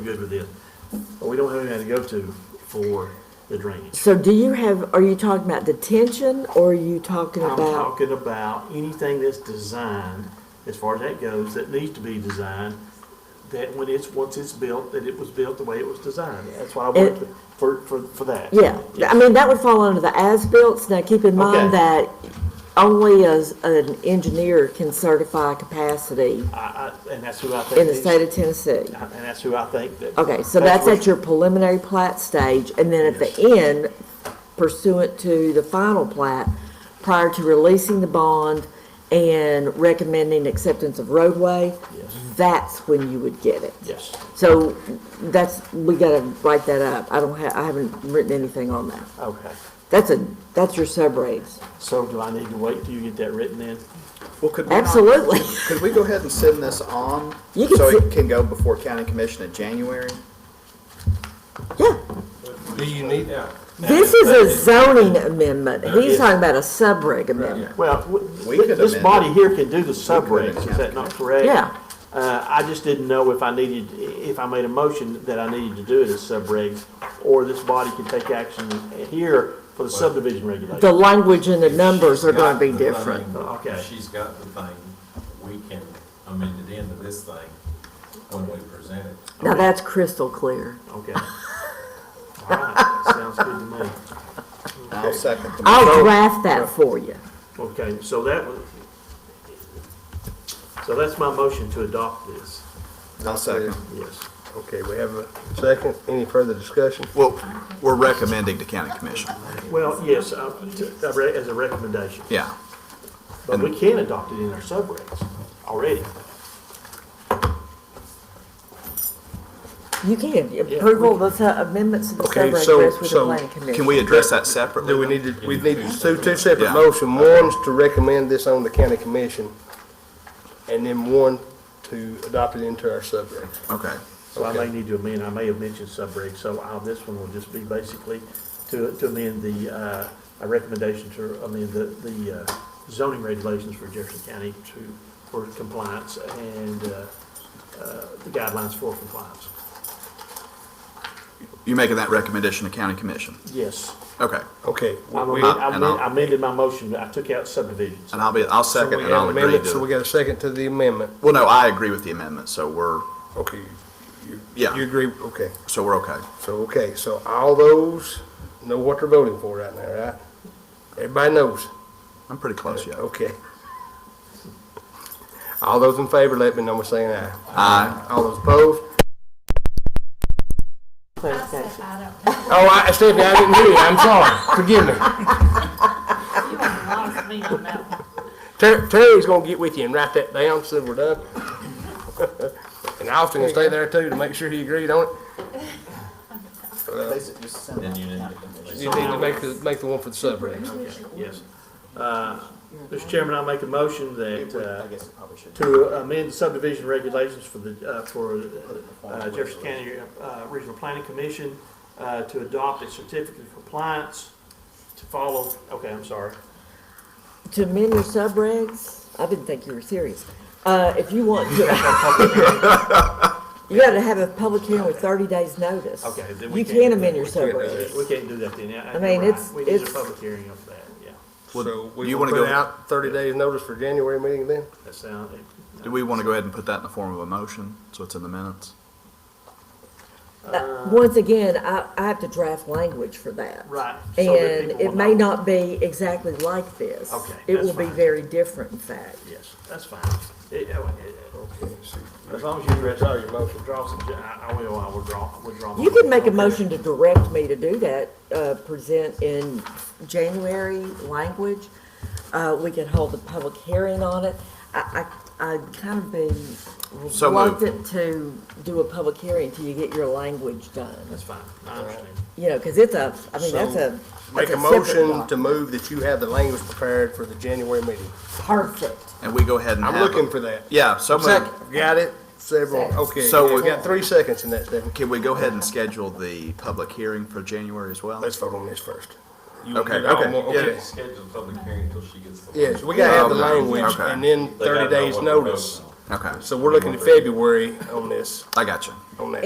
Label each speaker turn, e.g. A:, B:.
A: good with this. But we don't have anything to go to for the drainage.
B: So do you have, are you talking about detention or are you talking
A: I'm
B: about?
A: talking about anything that's designed, as far as that goes, that needs to be designed, that when it's, once it's built, that it was built the way it was designed. That's what I
B: It-
A: want to- for, for, for that.
B: Yeah, I mean, that would fall under the as-built. Now, keep in mind
A: Okay.
B: that only as an engineer can certify capacity
A: I, I, and that's who I think.
B: in the
A: is-
B: state of Tennessee.
A: And that's who I think that.
B: Okay, so that's
A: what-
B: at your preliminary plat stage, and then at the end pursuant to the final plat, prior to releasing the bond and recommending acceptance of roadway,
A: Yes.
B: that's when you would get it.
A: Yes,
B: So that's, we gotta write that up. I don't have, I haven't written anything on that.
A: okay.
B: That's a, that's your subreds.
A: So do I need to wait till you get that written in?
C: Well, could we not-
B: Absolutely.
C: Could we go ahead and send this on?
B: You can
C: So it
B: sit-
C: can go before county commission in January?
B: Yeah.
D: Do you need that?
B: This is a zoning amendment. He's talking about a subreg amendment.
A: Well, w-
C: We
A: th-
C: could
A: this
C: amend
A: body
C: it.
A: here can do the subregs,
C: amend
A: is
C: it.
A: that not correct?
B: Yeah.
A: Uh, I just didn't know if I needed, if I made a motion that I needed to do it as subregs, or this body can take action here for the subdivision
B: The
A: regulation.
B: language and the numbers are
D: She's got
B: gonna be
D: the
B: different.
D: thing.
A: Okay.
D: If She's got the thing, we can amend it into this thing when we present it.
B: Now, that's crystal clear.
A: Okay. All right, sounds good to me.
C: I'll second the
B: I'll draft that for you.
A: Okay, so that was, so that's my motion to adopt this,
C: I'll second.
A: yes.
E: Okay, we have a second. Any further discussion?
C: Well, we're recommending to county commission.
A: Well, yes, uh, to- uh, re- as a recommendation,
C: Yeah.
A: but we can adopt it in our subregs already.
B: You can, approval of the amendments to the
E: Okay,
B: subreg
E: so-
B: rests with the
E: so
B: planning commission.
C: Can we address that separately?
E: Do we need to, we need two, two separate
C: Yeah.
E: motion. One's to recommend this on the county commission, and then one to adopt it into our subreg.
C: Okay.
A: So I may need to amend, I may have mentioned subreg, so I'll, this one will just be basically to, to amend the, uh, a recommendation to amend the, the uh, zoning regulations for Jefferson County to, for compliance and, uh, uh, the guidelines for compliance.
F: You're making that recommendation to county commission?
A: Yes.
F: Okay.
E: Okay.
A: I
E: we-
A: amend- I
F: and I'll-
A: amend- I amended my motion, I took out subdivisions.
F: And I'll be, I'll
E: so we
F: second and
E: have
F: I'll agree
E: amendment, So we
F: to it.
E: got a second to the amendment.
F: Well, no, I agree with the amendment, so we're,
E: Okay. you-
F: Yeah.
E: You agree, okay.
F: so we're okay.
E: So, okay, so all those know what they're voting for right now, right? Everybody knows.
F: I'm pretty close, yeah.
E: Okay. All those in favor, let me know by saying aye.
F: Aye.
E: All those opposed?
B: Clarification.
G: I don't know.
E: Oh, I, Stephanie, I didn't hear you, I'm sorry, forgive me.
G: You have lost me on that one.
E: Ter- Terry's gonna get with you and write that down so we're done. And Austin will stay there too to make sure he agreed on it.
D: Then you need to.
E: You need to make the, make the one for the subregs.
A: Yes. Uh, Mr. Chairman, I make a motion that, uh,
C: guess it probably should.
A: to amend subdivision regulations for the, uh, for uh, Jefferson County uh, Regional Planning Commission uh, to adopt a certificate of compliance to follow, okay, I'm sorry.
B: To amend your subregs, I didn't think you were serious. Uh, if you want to. You gotta have a public hearing with thirty days' notice.
A: Okay, then we
B: You
A: can't
B: can
A: do
B: amend
A: that.
B: your
E: We can't do
B: subregs.
A: We can't do that then. Yeah,
B: I mean,
A: you're right.
B: it's-
A: We need a
B: it's-
A: public hearing of that, yeah.
E: So we
F: you
E: will
F: wanna
E: put
F: go-
E: out thirty days notice for January meeting then?
A: That sound,
F: Do we want to go ahead and put that in the form of a motion, so it's in the minutes?
B: Uh, Once again, I, I have to draft language for that.
A: Right, so that
B: And
A: people
B: it
A: will
B: may
A: know.
B: not be exactly like this.
A: Okay,
B: It
A: that's
B: will be
A: fine.
B: very different, in fact.
A: yes, that's fine. It- oh, it- As long as you withdraw your motion, draw some, I I will, I will draw, withdraw. my
B: You can make a
A: okay.
B: motion to direct me to do that, uh, present in January language. Uh, we could hold a public hearing on it. I, I, I'd kind of be
F: So moved.
B: reluctant to do a public hearing till you get your language done.
A: That's fine, I understand.
B: You know, cause it's a, I mean, that's a.
E: Make
B: that's
E: a
B: separate
E: motion to
B: document.
E: move that you have the language prepared for the January meeting.
B: Perfect.
F: And we go ahead and have.
E: I'm
F: a-
E: looking for that.
F: Yeah, so moved.
E: Second, got it? Several, okay.
F: So-
E: We got three seconds in that, Stephanie.
F: Can we go ahead and schedule the public hearing for January as well?
E: Let's vote on this first. You
F: Okay,
E: do all
F: okay,
E: one-
F: yeah.
E: okay.
D: Schedule a public hearing until she gets the.
E: Yes, we gotta have the
F: Okay,
E: language
F: okay.
E: and then
D: They gotta
E: thirty
D: know
E: days
D: what we're
E: notice.
D: voting on.
F: Okay,
E: So we're looking at February on this,
F: I got you.
E: on that.